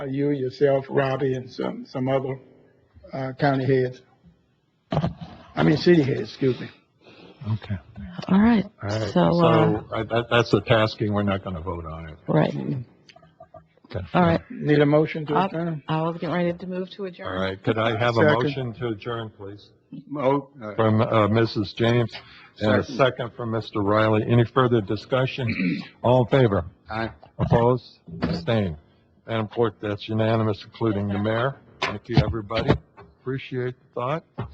uh, you, yourself, Robbie, and some, some other uh, county heads. I mean, city heads, excuse me. Okay. All right, All right. so, uh, So I- that, that's the tasking. We're not going to vote on it. right, Okay. all right. Need a motion to I adjourn? I was getting ready to move to All adjourn. right. Could I have a Second. motion to adjourn, please? Oh, uh, From, uh, Mrs. James and a Second. second from Mr. Riley. Any further discussion? All in favor? aye. Opposed? Abstained? Madam Clerk, that's unanimous, including the mayor. Thank you, everybody. Appreciate the thought.